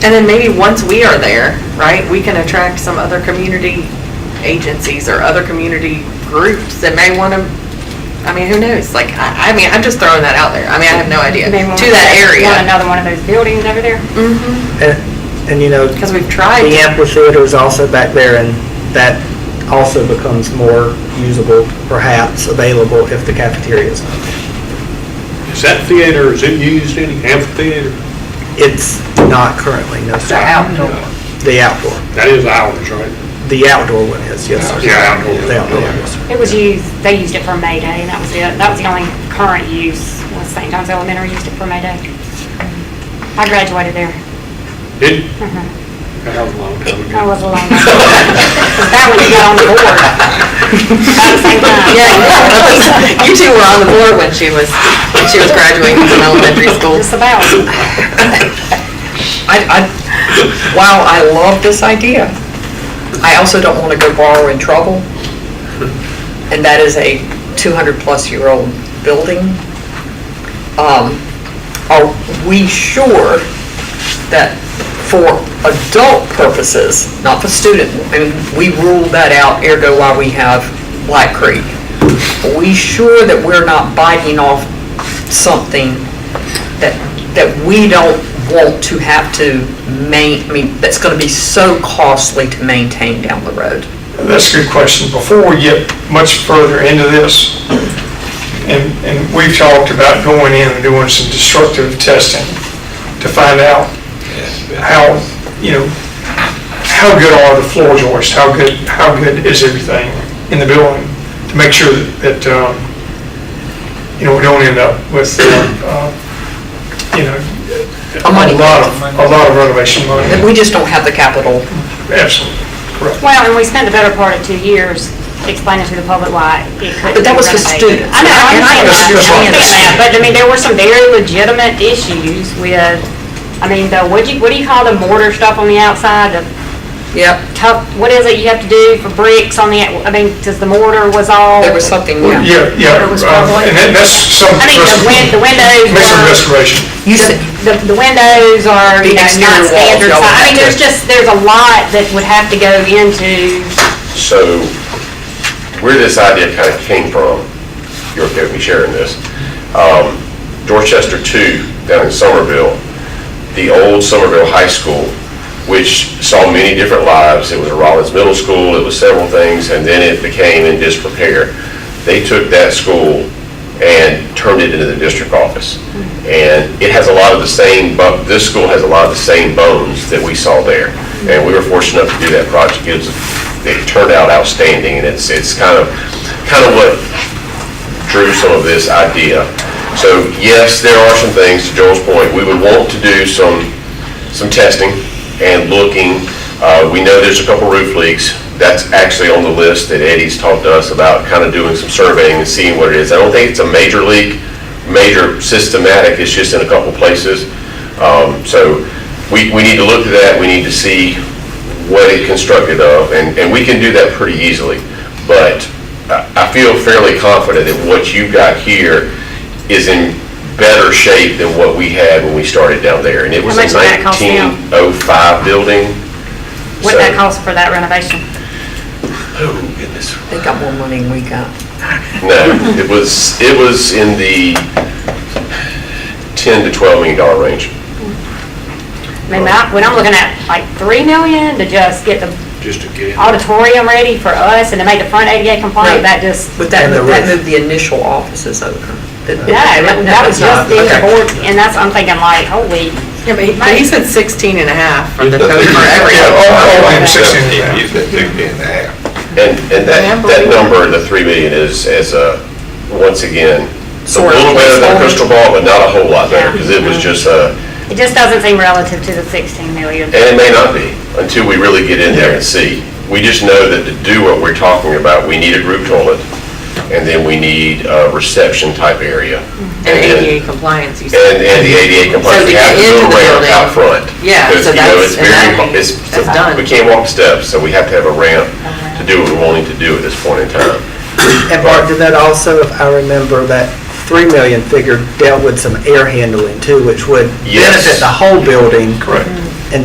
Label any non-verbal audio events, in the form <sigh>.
And then maybe once we are there, right, we can attract some other community agencies or other community groups that may want to, I mean, who knows? Like, I, I mean, I'm just throwing that out there. I mean, I have no idea. Maybe when To we that area. Want another one of those buildings over there? Mm-hmm, And, and you know, because we've tried. the to- amphitheater is also back there, and that also becomes more usable, perhaps, available if the cafeteria is not. Is that theater, is it used any amphitheater? It's not currently, no, The sir. outdoor. The outdoor, That is ours, right? the outdoor one is, yes, sir. Yeah, outdoor. The outdoor, one, yes, sir. It was used, they used it for May Day, and that was it. That was the only current use, was St. John's Elementary used it for May Day. I graduated there. Did, Mhm. that was a long time I ago. was alone. <laughs> That one got on the board. About the same time. Yeah, you two were on the board when she was, when she was graduating from elementary school. Just about. I, I, wow, I love this idea. I also don't want to go borrow in trouble. And that is a 200-plus-year-old building. Um, Are we sure that for adult purposes, not for student, and we ruled that out ergo why we have Black Creek. Are we sure that we're not biting off something that, that we don't want to have to main, I mean, that's gonna be so costly to maintain down the road. That's a good question. Before we get much further into this, and, and we've talked about going in and doing some destructive testing to find out how, you know, how good are the floor joists? How good, how good is everything in the building? To make sure that, um, you know, we don't end up with, uh, you know, A money lot of, a lot of renovation money. That we just don't have the capital. Absolutely, correct. Well, and we spent the better part of two years explaining to the public why it couldn't be renovated. But that was for students. I know, I And I understand that, I understand understand that. that, but I mean, there were some very legitimate issues with, I mean, the, what do you, what do you call the mortar stuff on the outside, the Yep, tough, what is it you have to do for bricks on the, out- I mean, because the mortar was all, there was I something, yeah. Yeah, yeah, It was uh, probably- and that- that's some. mean, the win, the windows Make some were. restoration. You said, the, the windows are, you The know, exterior not walls, standard y'all size. I have mean, to- there's just, there's a lot that would have to go into, So where this idea kind of came from, you're okay with me sharing this, um, Dorchester 2 down in Somerville, the old Somerville High School, which saw many different lives. It was a Rollins Middle School, it was several things, and then it became in disrepair. They took that school and turned it into the district office. And it has a lot of the same, bu- this school has a lot of the same bones that we saw there. And we were fortunate enough to do that project. It was, it turned out outstanding, and it's, it's kind of, kind of what drew some of this idea. So yes, there are some things, to Joel's point, we would want to do some, some testing and looking. Uh, We know there's a couple roof leaks. That's actually on the list that Eddie's talked to us about, kind of doing some surveying and seeing what it is. I don't think it's a major leak, major systematic, it's just in a couple places. Um, So we, we need to look at that, we need to see what it constructed of, and, and we can do that pretty easily. But I I feel fairly confident that what you've got here is in better shape than what we had when we started down there. And it was How a much did that cost now? 1905 building. what that So- cost for that renovation. Oh, goodness. they got more money than we got. No, it was, it was in the 10 to 12 million dollar range. I mean, I- when I'm looking at like three million to just get the Just again. auditorium ready for us and to make the front ADA compliant, Right. that just, But that, And the that roof. moved the initial offices over. no, that that was just the Okay. board, and that's, I'm thinking like, holy, Yeah, but he- but he said 16 and a half for the Yeah, total for Yeah, everything. all, all in sixteen. You said fifty and a half. And, and that, Remember that we- number, the 3 million is, is a, once again, it's a Sort of little better than placeholder. Crystal Ball, but not a whole lot better, because it was just a, it just doesn't seem relative to the sixteen million. And it may not be, until we really get in there and see. We just know that to do what we're talking about, we need a group toilet, and then we need a reception type area. And then- ADA compliance, you And, said. and the ADA compliance, So to we have get to into go the ramp building. out front. Yeah, Because, so you know, that's- it's and very that- hard- it's- that's done. We can't walk steps, so we have to have a ramp to do what we're wanting to do at this point in time. And Mark, did that also, if I remember, that 3 million figure dealt with some air handling too, which would Yes. benefit the whole building. Correct.